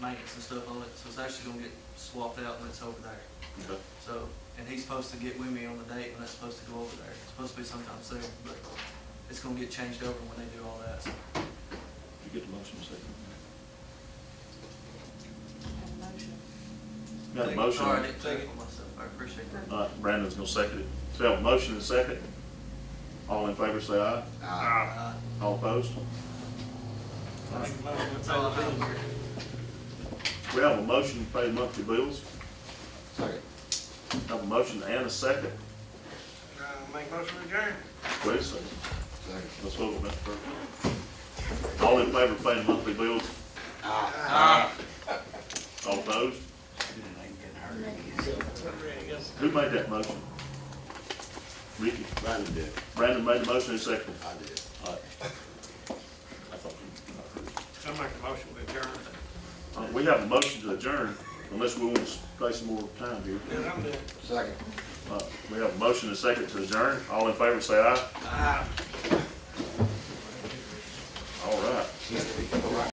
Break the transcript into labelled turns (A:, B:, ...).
A: maintenance and stuff on it, so it's actually gonna get swapped out when it's over there.
B: Okay.
A: So, and he's supposed to get with me on the date when that's supposed to go over there. It's supposed to be sometime soon, but it's gonna get changed over when they do all that, so.
B: Did you get the motion second? Got a motion?
A: Sorry, I didn't take it for myself, I appreciate that.
B: All right, Brandon's gonna second it. So we have a motion and a second. All in favor, say aye.
A: Uh,
B: All opposed?
A: That's all I have here.
B: We have a motion to pay the monthly bills.
C: Second.
B: Have a motion and a second.
D: Uh, Make motion to adjourn.
B: Wait a second.
C: Second.
B: Let's vote on that first. All in favor of paying the monthly bills? All opposed? Who made that motion? Ricky?
C: Brandon did.
B: Brandon made the motion and seconded.
C: I did.
B: All right. I thought you-
D: I'll make a motion to adjourn.
B: Uh, We have a motion to adjourn, unless we want to stay some more time here.
D: Yeah, I'm done.
C: Second.
B: Uh, We have a motion and a second to adjourn. All in favor, say aye.
D: Ah.